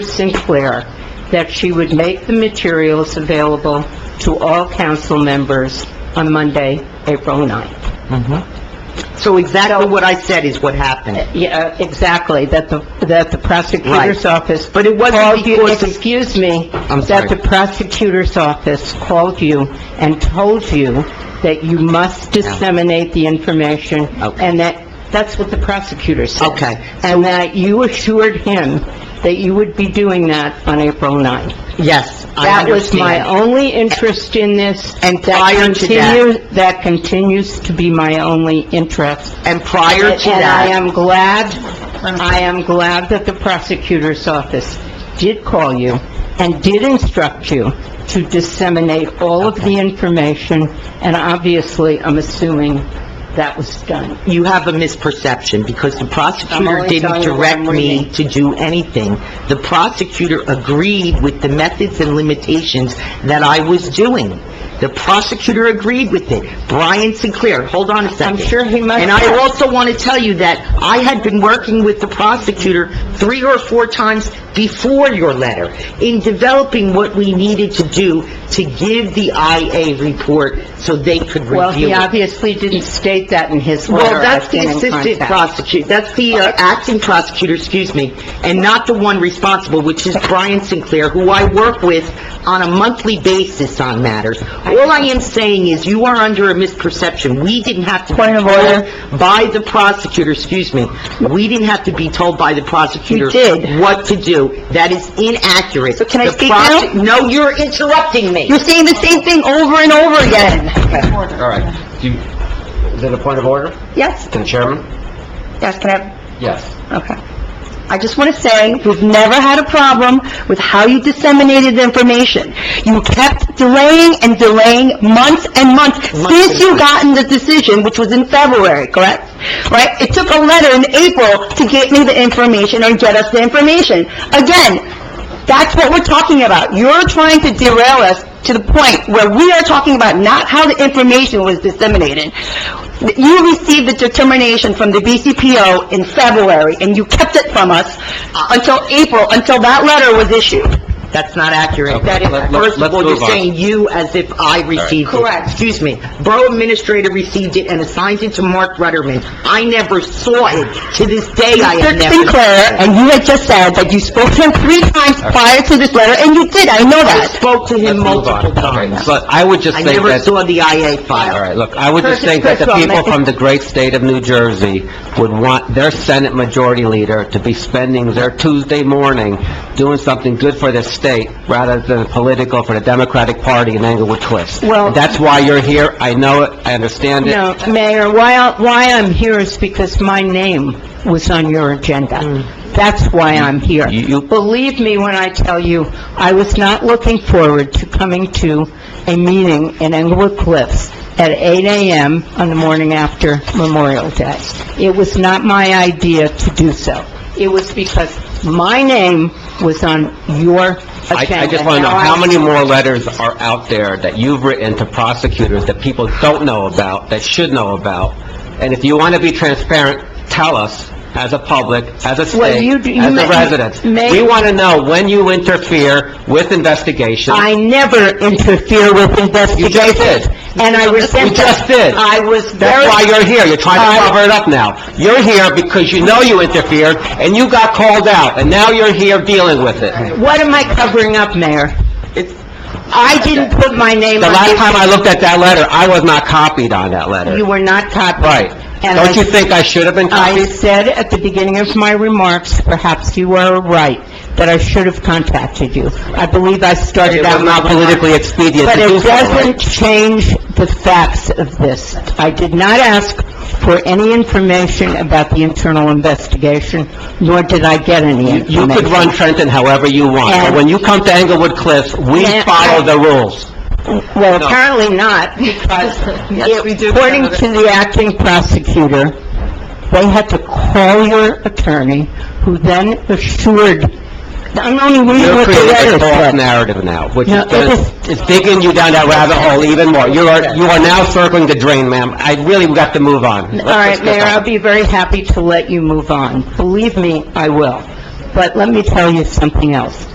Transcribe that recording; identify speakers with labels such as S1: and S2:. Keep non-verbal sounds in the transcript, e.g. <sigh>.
S1: Sinclair that she would make the materials available to all council members on Monday, April 9th.
S2: Mm-hmm. So exactly what I said is what happened.
S1: Yeah, exactly, that the, that the prosecutor's
S2: Right.
S1: office...
S2: But it wasn't
S1: called you-
S2: because of-
S1: Excuse me.
S2: I'm sorry.
S1: That the prosecutor's office called you and told you that you must disseminate the information,
S2: Okay.
S1: and that, that's what the prosecutor said.
S2: Okay.
S1: And that you assured him that you would be doing that on April 9th.
S2: Yes, I
S1: That was my
S2: understand.
S1: only interest in this.
S2: And
S1: That
S2: prior to that-
S1: continue- That continues to be my only interest.
S2: And prior to
S1: And I
S2: that,
S1: am glad, I am glad that the prosecutor's office did call you and did instruct you to disseminate all of the information, and obviously, I'm assuming that was done.
S2: you have a misperception, because the
S1: I'm
S2: prosecutor
S1: only
S2: didn't
S1: telling you what
S2: direct
S1: I'm
S2: me
S1: reading.
S2: to do anything. The prosecutor agreed with the methods and limitations that I was doing. The prosecutor agreed with it. Brian Sinclair, hold on a
S1: I'm
S2: second.
S1: sure he must...
S2: And I also want to tell you that I had been working with the prosecutor three or four times before your letter in developing what we needed to do to give the IA report so they could
S1: Well,
S2: review
S1: he
S2: it.
S1: obviously didn't state that in his letter.
S2: Well, that's
S1: I've
S2: the
S1: been in
S2: assistant
S1: contact.
S2: prosecutor, that's the uh, acting prosecutor, excuse me, and not the one responsible, which is Brian Sinclair, who I work with on a monthly basis on matters. All I am saying is you are under a misperception. We didn't have to be
S1: Point of order.
S2: told by the prosecutor, excuse me, we didn't have to be told by the prosecutor
S1: You did.
S2: what to do. That is inaccurate. So
S1: can I speak now?
S2: No, you're interrupting me.
S1: You're saying the same thing over and over again.
S3: All right. Do you, is it a point of order
S1: Yes,
S3: to the chairman?
S1: yes, can I,
S3: Yes.
S1: okay. I just want to say, we've never had a problem with how you disseminated the information. You kept delaying and delaying months and months since you gotten the decision, which was in February, correct? Right? It took a letter in April to get me the information or get us the information. Again, That's what we're talking about. You're trying to derail us to the point where we are talking about not how the information was disseminated. You received the determination from the BCPO in February, and you kept it from us until April, until that letter was issued.
S2: That's not accurate.
S3: Okay,
S2: That is,
S3: let- let-
S2: first of
S3: let's
S2: all, you're
S3: move on.
S2: saying you as if I received it.
S1: Correct.
S2: Excuse me. Borough Administrator received it and assigned it to Mark Rutterman. I never saw it. To this day, I have
S1: Mr.
S2: never...
S1: Sinclair, and you had just said that you spoke to him three times prior to this letter, and you did, I know
S2: I
S1: that.
S2: spoke to him
S3: Let's move on.
S2: multiple
S3: Okay,
S2: times.
S3: Look, I would just
S2: I
S3: think
S2: never
S3: that,
S2: saw the IA
S3: all
S2: file.
S3: right, look, I would just
S1: Curtis,
S3: think that the
S1: Chris, Roman.
S3: people from the great state of New Jersey would want their Senate Majority Leader to be spending their Tuesday morning doing something good for the state rather than political for the Democratic Party in Englewood Cliffs.
S1: Well-
S3: And That's why you're here. I know it. I understand it.
S1: No, Mayor, why, I- why I'm here is because my name was on your agenda. That's why I'm here.
S3: Hmm. You- you-
S1: Believe me when I tell you, I was not looking forward to coming to a meeting in Englewood Cliffs at 8 AM on the morning after Memorial Day. It was not my idea to do so. It was because my name was on your
S3: I,
S1: agenda.
S3: I just want to know,
S1: Now I-
S3: how many more letters are out there that you've written to prosecutors that people don't know about, that should know about? And if you want to be transparent, tell us, as a public, as a
S1: Well, you
S3: state,
S1: do- you
S3: as
S1: may-
S3: a resident.
S1: may-
S3: We want to know when you interfere with investigations.
S1: I never interfere with
S3: You
S1: investigations.
S3: just did.
S1: And
S3: <laughs>
S1: I resent
S3: You
S1: that.
S3: just did.
S1: I was
S3: That's
S1: very...
S3: why you're here, you're trying to cover it up now. You're here because you know you interfered, and you got called out, and now you're here dealing with it.
S1: What am I covering up, Mayor?
S3: It's-
S1: I didn't put my name
S3: The
S1: on
S3: last
S1: it.
S3: time I looked at that letter, I was not copied on that letter.
S1: You were not copied.
S3: Right.
S1: And
S3: Don't
S1: I-
S3: you think I should have been
S1: I
S3: copied?
S1: said at the beginning of my remarks, perhaps you were right, that I should have contacted you. I believe I
S3: It
S1: started out...
S3: was not politically expedient to
S1: But
S3: do
S1: it
S3: so,
S1: doesn't
S3: right?
S1: change the facts of this. I did not ask for any information about the internal investigation, nor did I get any
S3: You
S1: information.
S3: could run Trenton however you want, but
S1: And-
S3: when you come to Englewood Cliffs, we
S1: Yeah,
S3: follow
S1: I-
S3: the rules.
S1: Well,
S3: No.
S1: apparently not, because
S2: Yes, we do.
S1: according to the acting prosecutor, they had to call your attorney, who then assured, I'm only reading
S3: You're
S1: what the
S3: creating a
S1: letter
S3: false
S1: said.
S3: narrative now, which
S1: No,
S3: is
S1: it
S3: gonna-
S1: is-
S3: is digging you down that rabbit hole even more. You are, you are now circling the drain, ma'am. I really, we got to move on.
S1: All right, Mayor, I'll be very happy to let you move on. Believe me, I will.
S2: But let me tell you <laughs> something else.